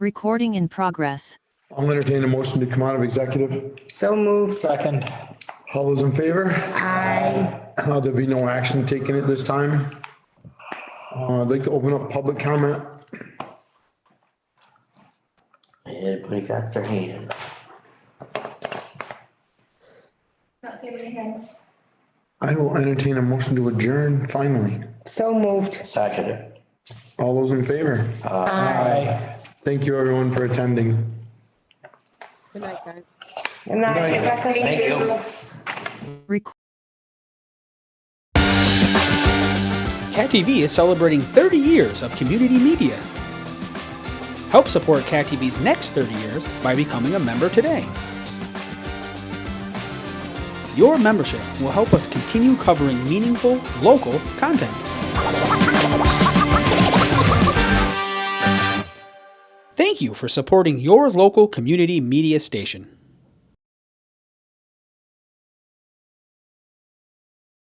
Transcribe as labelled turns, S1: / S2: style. S1: Recording in progress.
S2: I'll entertain a motion to come out of executive.
S3: So moved.
S4: Second.
S2: All those in favor? Aye. There'll be no action taken at this time. Uh, I'd like to open up public comment.
S5: Everybody got their hand. up.
S6: Not seeing any hands.
S2: I will entertain a motion to adjourn finally.
S3: So moved.
S5: Second it.
S2: All those in favor?
S4: Aye.
S2: Thank you everyone for attending.
S7: Good night, guys.
S3: Good night, Rebecca.
S5: Thank you.
S1: Rec-
S8: Cat TV is celebrating 30 years of community media. Help support Cat TV's next 30 years by becoming a member today. Your membership will help us continue covering meaningful, local content. Thank you for supporting your local community media station.